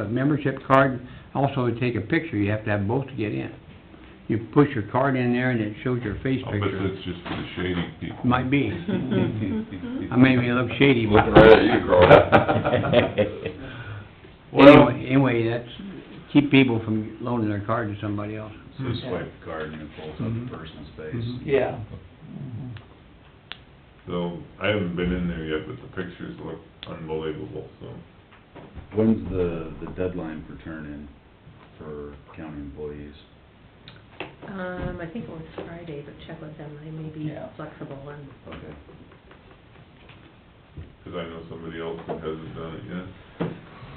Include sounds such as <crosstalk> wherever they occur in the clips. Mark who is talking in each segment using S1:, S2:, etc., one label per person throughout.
S1: a membership card, also to take a picture, you have to have both to get in. You push your card in there and it shows your face
S2: I'll bet
S1: picture.
S2: that's just for the shady people.
S1: Might be. I may be a little shady, but...
S3: Looking
S4: <laughs>
S3: right at you,
S2: Carl.
S3: Well,
S1: Anyway, anyway, that's, keep people from loaning their card to somebody else.
S4: So swipe the card and it pulls up
S1: Mhm.
S4: the person's face.
S1: Mhm.
S3: yeah,
S2: So, I haven't been in there yet, but the pictures look unbelievable, so.
S4: When's the, the deadline for turn-in for county employees?
S5: Um, I think it was Friday, but check with them, they may be
S3: Yeah.
S5: flexible and,
S4: Okay.
S2: Cause I know somebody else that hasn't done it yet.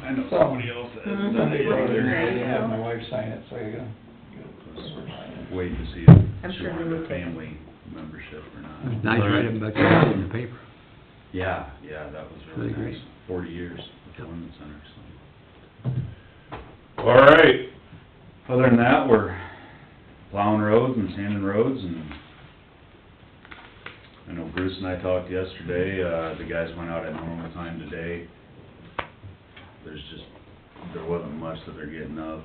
S4: I know
S3: somebody
S4: else
S5: Mhm.
S3: Sunday,
S5: Sunday,
S3: brother,
S5: brother.
S3: I had my wife sign it, so I gotta- gotta...
S4: Wait to see if
S5: I'm
S4: she
S5: sure they
S4: wanted a
S5: would.
S4: family membership or
S1: It's
S4: not.
S1: nice writing about your job in the
S4: <laughs>
S1: paper.
S4: Yeah, yeah, that was really
S1: Really
S4: nice. Forty years at the Women's Center, so.
S2: All right,
S4: Other than that, we're plowing roads and sanding roads and I know Bruce and I talked yesterday, uh, the guys went out at normal time today. There's just, there wasn't much that they're getting up.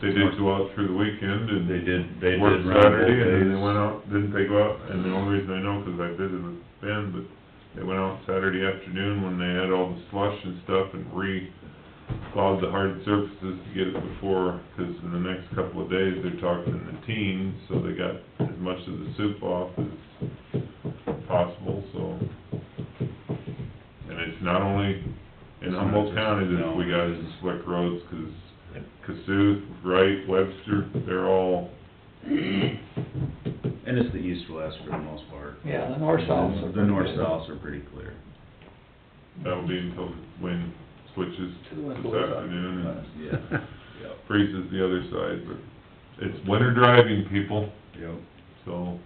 S2: they did go out through the weekend and.
S4: They did, they did
S2: Worked
S4: run both
S2: Saturday, and then they
S4: days.
S2: went out, didn't they go out, and the only reason I know, 'cause I visited with Ben, but they went out Saturday afternoon when they had all the slush and stuff and re-plowed the hard surfaces to get it before, 'cause in the next couple of days, they're talking the teens, so they got as much of the soup off as possible, so. And it's not only in Humboldt County that we got these slick roads, 'cause Cassuth, Wright, Webster, they're all
S4: And it's the east-west for the most part.
S3: Yeah, the north-souths are...
S4: The north-souths are pretty clear.
S2: That'll be until wind switches
S3: Two
S2: this
S3: and both sides.
S2: afternoon and
S4: Yeah, yep,
S2: freezes the other side, but it's winter driving, people,
S4: yep.
S2: so.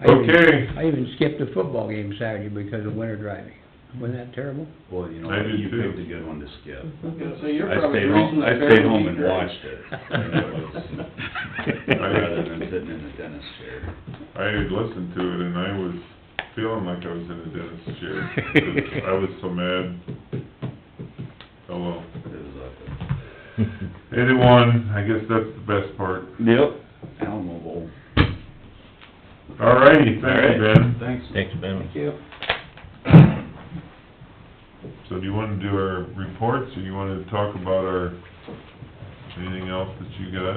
S1: I even-
S2: Okay.
S1: I even skipped a football game Saturday because of winter driving. Wasn't that terrible?
S4: Well, you know,
S2: I
S4: what,
S2: do
S4: you
S2: too.
S4: picked a good one to skip.
S3: So you're
S4: I stayed home, I stayed home and watched it.
S3: <laughs>
S4: Rather than sitting in the dentist chair.
S2: I had listened to it and I was feeling like I was in a dentist's chair. 'cause I was so mad. Oh well.
S4: It was
S3: uh,
S2: Eighty-one, I guess that's the best part.
S4: ugly. Yep. Alamo Bowl.
S2: All righty, thank you, Ben.
S4: Thanks.
S6: Thanks, Ben.
S3: Thank you.
S2: So do you wanna do our reports or you wanna talk about our, anything else that you got?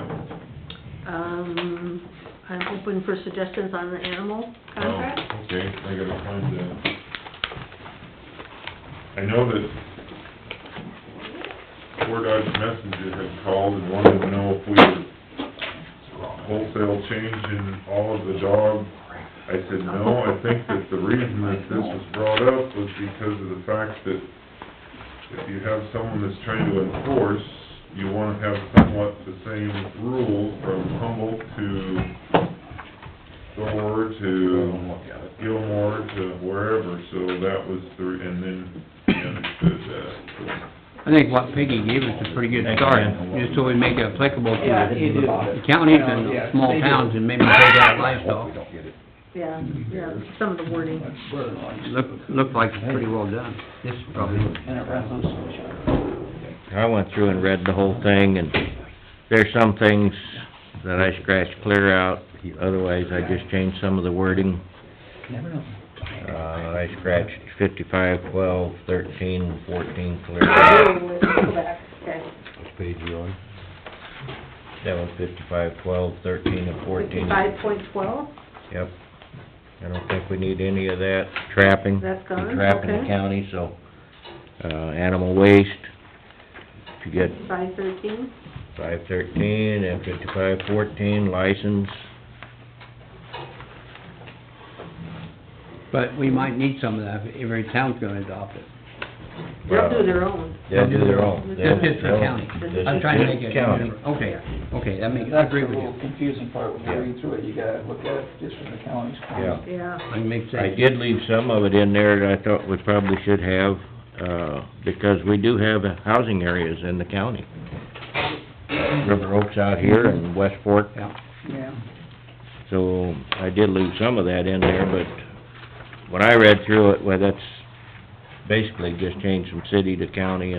S5: um, I'm open for suggestions on the animal contract.
S2: Oh, Okay, I gotta find that. I know that Fort Dodge Messenger had called and wanted to know if we were wholesale changing all of the dog. I said, no, I think that the reason that this was brought up was because of the fact that if you have someone that's trying to enforce, you wanna have somewhat the same rules from Humboldt to Thor to
S4: Don't look at it.
S2: Gilmore to wherever, so that was the, and then he understood that.
S1: I think what Peggy gave us is a pretty good
S6: Thank you,
S1: start,
S6: man.
S1: just so we make it applicable
S3: Yeah,
S1: to
S3: you do.
S1: the counties and the
S3: Yeah,
S1: small
S3: they do.
S1: towns and maybe take out livestock.
S3: don't get it.
S5: Yeah, yeah, some of the wording.
S3: My brother-in-law used to
S1: Look,
S3: cook.
S1: looked like it's pretty well done. This is probably,
S3: And it runs on social.
S6: I went through and read the whole thing, and there's some things that I scratched clear out. Otherwise, I just changed some of the wording.
S3: Never know.
S6: Uh, I scratched fifty-five, twelve, thirteen, fourteen clear out.
S5: Go back, okay.
S6: Which page you on? That one, fifty-five, twelve, thirteen, and fourteen.
S5: Fifty-five point twelve,
S6: Yep. I don't think we need any of that trapping.
S5: That's gone,
S6: We trap in the
S5: okay.
S6: county, so, uh, animal waste. If you get
S5: five thirteen,
S6: five thirteen and fifty-five fourteen license.
S1: but we might need some of that if every town's gonna adopt it.
S5: they'll do their own.
S6: They'll do their own.
S5: That's
S1: Just
S5: just
S1: for
S6: They'll-
S1: county.
S6: this
S1: I'm
S6: is
S1: trying to
S6: just
S1: make it,
S6: county.
S1: okay, okay, that makes, I
S3: That's the
S1: agree with you.
S3: little confusing part when you
S6: Yeah.
S3: read through it, you gotta look at it just from the county's point.
S6: Yeah.
S5: Yeah,
S1: I make sense.
S6: I did leave some of it in there that I thought we probably should have, uh, because we do have housing areas in the county. River Oaks out here and West Fork,
S1: Yeah,
S3: Yeah.
S6: so I did leave some of that in there, but when I read through it, well, that's basically just changed from city to county